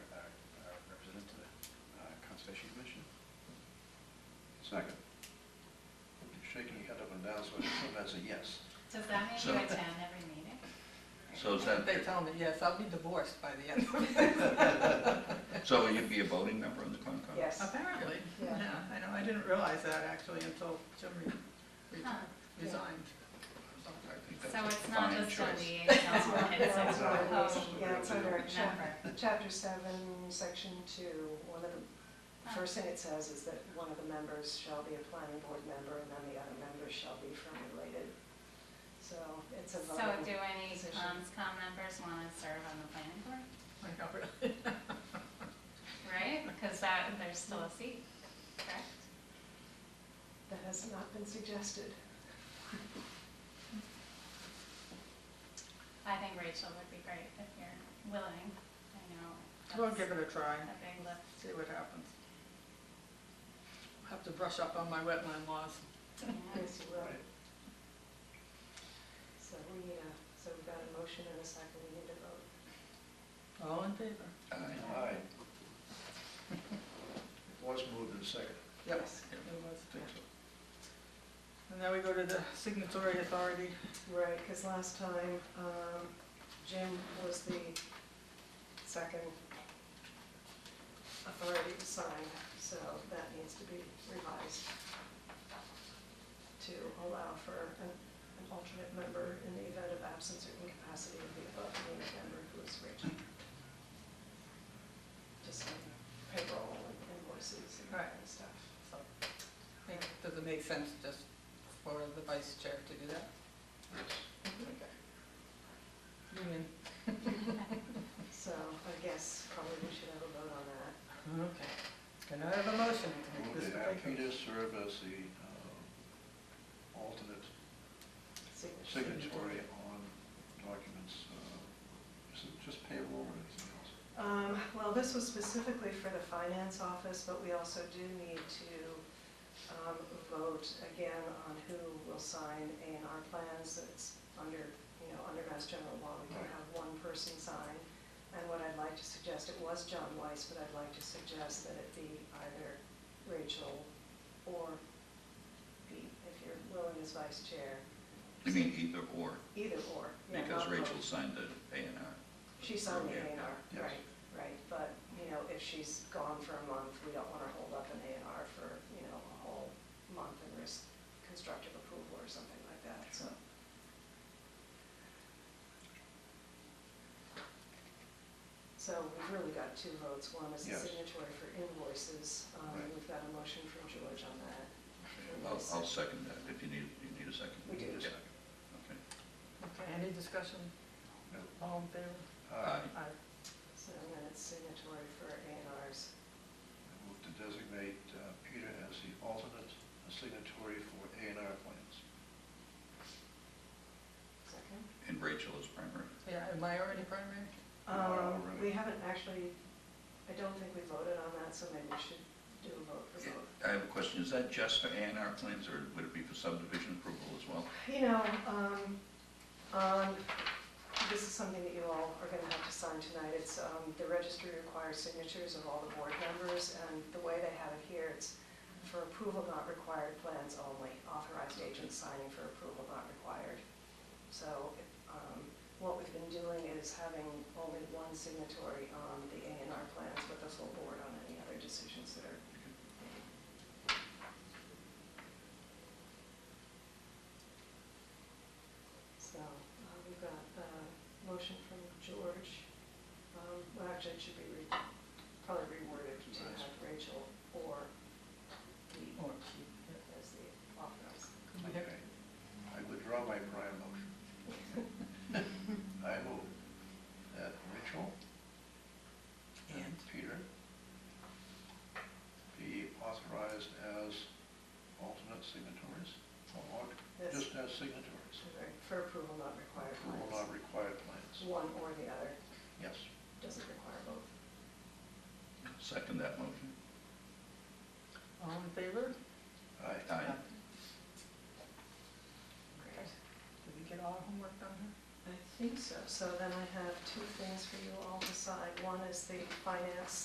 Second. You're shaking your head up and down, so I assume that's a yes. Does that mean So- you attend every meeting? So is that, They tell me, yes, I'll be divorced by the end of it. so will you be a voting member on the Concom? Yes. Apparently, Yeah. yeah, I know, I didn't realize that actually until Jim re- re- Huh. resigned. I think So that's a it's not fine just a choice. liaison, That's right, it's yeah, it's a right, proposed yeah, it's under chap- member. chapter seven, section two, one of Ah. the, first thing it says is that one of the members shall be a planning board member, and then the other members shall be from related. So it's a So voting. do any position. COMSCOM members want to serve on the planning board, Like, I really- right? Because that, there's still a seat, correct? That has not been suggested. I think Rachel would be great if you're willing. I know. We'll that's give it a try, A big lift. see what happens. Have to brush up on my wetland laws. Yeah. Yes, you will. So we need a, so we've got a motion and a second, we need a vote. All in favor? Aye. Aye. It was moved and second. Yep, it was. And now we go to the signatory authority. Right, because last time, um, Jim was the second authority to sign, so that needs to be revised to allow for an an alternate member in the event of absence or incapacity of the above named member who is Rachel. Just like payroll and invoices and that kind of stuff. So, I think, does it make sense just for the vice chair to do that? Okay. Union. So I guess probably we should have a vote on that. Okay. Can I have a motion to make Moved this that Peter particular? serve as the uh, alternate Signature. signatory on documents, uh, is it just payroll or anything else? Um, Well, this was specifically for the finance office, but we also do need to um, vote again on who will sign A and R plans. It's under, you know, under Mass General Law, we can have one person sign. And what I'd like to suggest, it was John Weiss, but I'd like to suggest that it be either Rachel or Pete, if you're willing as vice chair, You mean either or, either or. yeah, because not both. Rachel signed the A and R. She signed the A and Yeah. R, right, right, but, you know, if she's gone for a month, we don't wanna hold up an A and R for, you know, a whole month and risk constructive approval or something like that, so. So we've really got two votes, one is a Yes. signatory for invoices, um, Right. we've got a motion from George on that. I'll, I'll second that, if you need, you need a second. We do. Yeah. Okay. Okay, any discussion? No. All in favor? Aye. Aye. So then it's signatory for A and Rs. I move to designate uh, Peter as the alternate signatory for A and R plans. Second? And Rachel is primary. Yeah, am I already primary? Wow, Um, really? we haven't actually, I don't think we voted on that, so maybe we should do a vote for both. I have a question, is that just for A and R plans, or would it be for subdivision approval as well? You know, um, um, this is something that you all are gonna have to sign tonight. It's, um, the registry requires signatures of all the board members, and the way they have it here, it's for approval not required plans only, authorized agents signing for approval not required. So, um, what we've been doing is having only one signatory on the A and R plans, but the full board on any other decisions that are So uh, we've got a motion from George. Um, Well, actually, it should be re- probably reworded to Right. have Rachel or Pete Or Keith? as the authorized. Yep. Okay. I withdraw my prior motion. I move that Rachel and And? Peter be authorized as alternate signatories, or That's just as signatories, for approval not required. for all not required plans. One or the other, Yes. doesn't require both. Second that motion. All in favor? Aye. Aye. Great. Did we get all our homework done here? I think so. So then I have two things for you all to sign. One is the finance